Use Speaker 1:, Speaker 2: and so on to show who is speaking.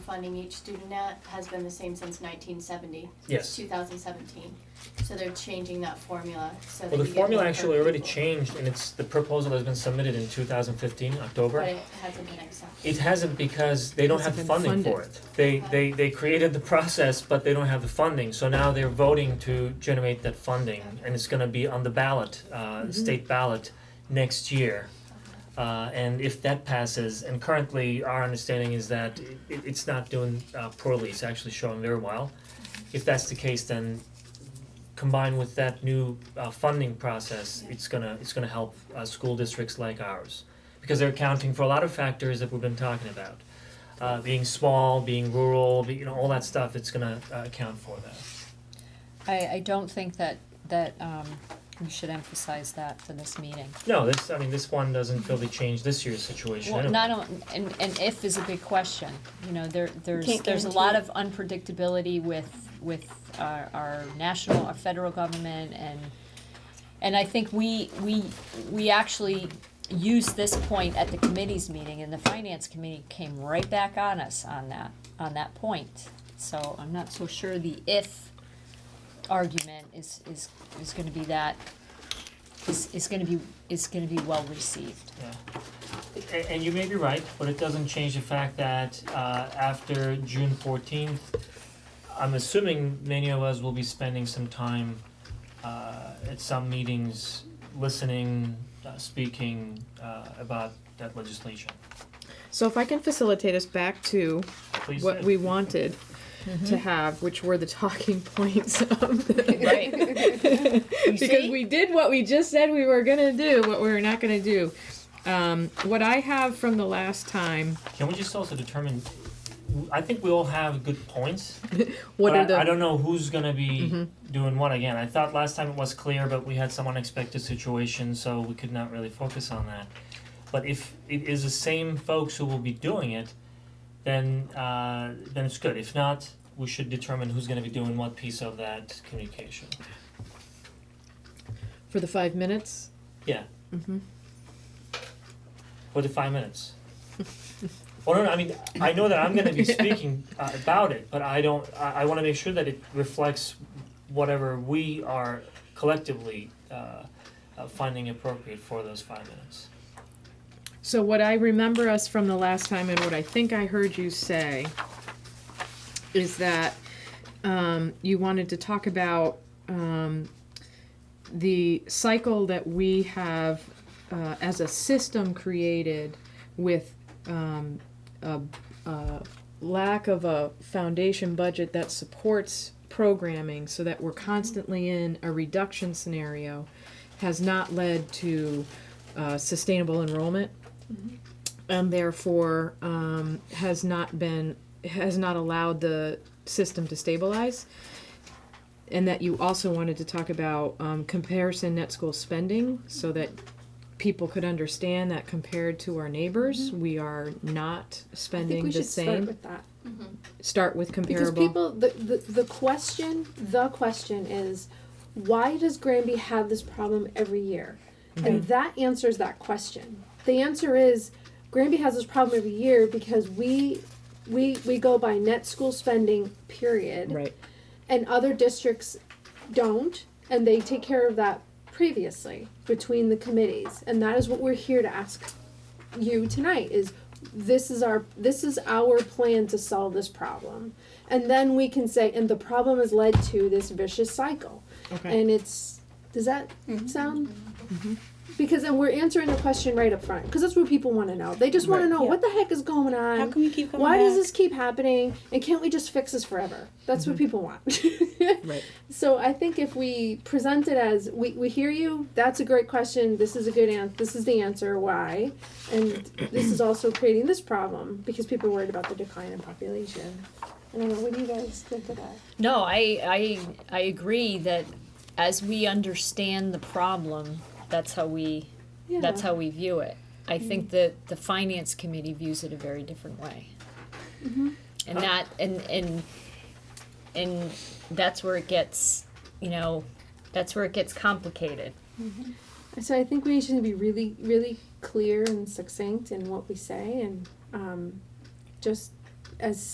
Speaker 1: funding each student at has been the same since nineteen seventy.
Speaker 2: Yes.
Speaker 1: Two thousand seventeen, so they're changing that formula, so that
Speaker 2: Well, the
Speaker 1: we get
Speaker 2: formula
Speaker 1: more
Speaker 2: actually already
Speaker 1: people.
Speaker 2: changed and it's, the proposal has been submitted in two thousand fifteen, October.
Speaker 1: But it hasn't been accepted.
Speaker 2: It hasn't because they don't have
Speaker 3: Hasn't
Speaker 2: the
Speaker 3: been
Speaker 2: funding for
Speaker 3: funded.
Speaker 2: it. They
Speaker 1: Okay.
Speaker 2: they they created the process, but they don't have the funding, so now they're voting to generate that funding and it's gonna be on the ballot, uh state ballot next year. Uh and if that passes, and currently our understanding is that it it- it's not doing uh poorly, it's actually showing very well. If that's the case, then combined with that new uh funding process, it's gonna it's gonna help uh school districts like ours. Because they're accounting for a lot of factors that we've been talking about. Uh being small, being rural, be- you know, all that stuff, it's gonna uh account for that.
Speaker 4: I, I don't think that, that, um, we should emphasize that for this meeting.
Speaker 2: No, this, I mean, this one doesn't really change this year's situation
Speaker 4: Well,
Speaker 2: anyway.
Speaker 4: not, on- and, and if is a big question, you know, there, there's,
Speaker 5: Can't
Speaker 4: there's a lot
Speaker 5: guarantee it.
Speaker 4: of unpredictability with, with our, our national, our federal government and, and I think we, we, we actually used this point at the committee's meeting and the finance committee came right back on us on that, on that point. So I'm not so sure the if argument is, is, is gonna be that, is, is gonna be, is gonna be well received.
Speaker 2: A- And you may be right, but it doesn't change the fact that uh after June fourteenth, I'm assuming many of us will be spending some time uh at some meetings, listening, uh speaking uh about that legislation.
Speaker 3: So if I can facilitate us back to
Speaker 2: Please uh,
Speaker 3: what
Speaker 2: do.
Speaker 3: we wanted to have, which were the talking points of the.
Speaker 4: Right.
Speaker 3: because we did what we just said we were gonna do, what we were not gonna do. Um, what I have from the last time,
Speaker 2: Can we just also determine, I think we all have good points,
Speaker 3: what
Speaker 2: but
Speaker 3: are
Speaker 2: I,
Speaker 3: the. Mm-hmm.
Speaker 2: I don't know who's gonna be doing what again. I thought last time it was clear, but we had some unexpected situation, so we could not really focus on that. But if it is the same folks who will be doing it, then uh, then it's good. If not, we should determine who's gonna be doing what piece of that communication.
Speaker 3: For the five minutes?
Speaker 2: Yeah.
Speaker 3: Mm-hmm.
Speaker 2: What the five minutes? well, no, no, I mean, I know that I'm gonna be
Speaker 3: Yeah.
Speaker 2: speaking uh, about it, but I don't, I, I wanna make sure that it reflects whatever we are collectively uh, uh, finding appropriate for those five minutes.
Speaker 3: So what I remember us from the last time and what I think I heard you say is that um, you wanted to talk about um, the cycle that we have uh, as a system created with um, a, a lack of a foundation budget that supports programming so that we're constantly in a reduction scenario has not led to uh, sustainable enrollment
Speaker 5: Mm-hmm.
Speaker 3: and therefore um, has not been has not allowed the system to stabilize and that you also wanted to talk about um, comparison net school spending so that people could understand that compared to our neighbors we are not
Speaker 5: Mm-hmm. I think
Speaker 3: spending
Speaker 5: we
Speaker 3: the
Speaker 5: should start
Speaker 3: same
Speaker 5: with that.
Speaker 3: start with
Speaker 5: Because
Speaker 3: comparable
Speaker 5: people, the, the, the question, the question is, why does Granby have this problem every year?
Speaker 3: Mm-hmm.
Speaker 5: And that answers that question. The answer is, Granby has this problem every year because we, we, we go by net school spending, period.
Speaker 3: right
Speaker 5: and other districts don't and they take care of that previously between the committees and that is what we're here to ask you tonight is this is our this is our plan to solve this problem and then we can say and the problem has led to this vicious cycle
Speaker 3: okay
Speaker 5: and it's does that
Speaker 6: Mm-hmm.
Speaker 5: sound because then we're answering the question right up front because that's what people want to know they just want to know what the heck is going on
Speaker 6: How can we keep going
Speaker 5: why does
Speaker 6: back?
Speaker 5: this keep happening and can't we just fix this forever that's what people want
Speaker 3: right
Speaker 5: so i think if we present it as we, we hear you that's a great question this is a good answer this is the answer why and this is also creating this problem because people are worried about the decline in population i don't know what do you guys think of that
Speaker 4: No, I, I, I agree that as we understand the problem, that's how we,
Speaker 5: yeah.
Speaker 4: that's how we view it. I think that the finance committee views it a very different way. And that, and, and, and that's where it gets, you know, that's where it gets complicated.
Speaker 5: So I think we should be really, really clear and succinct in what we say, and um, just as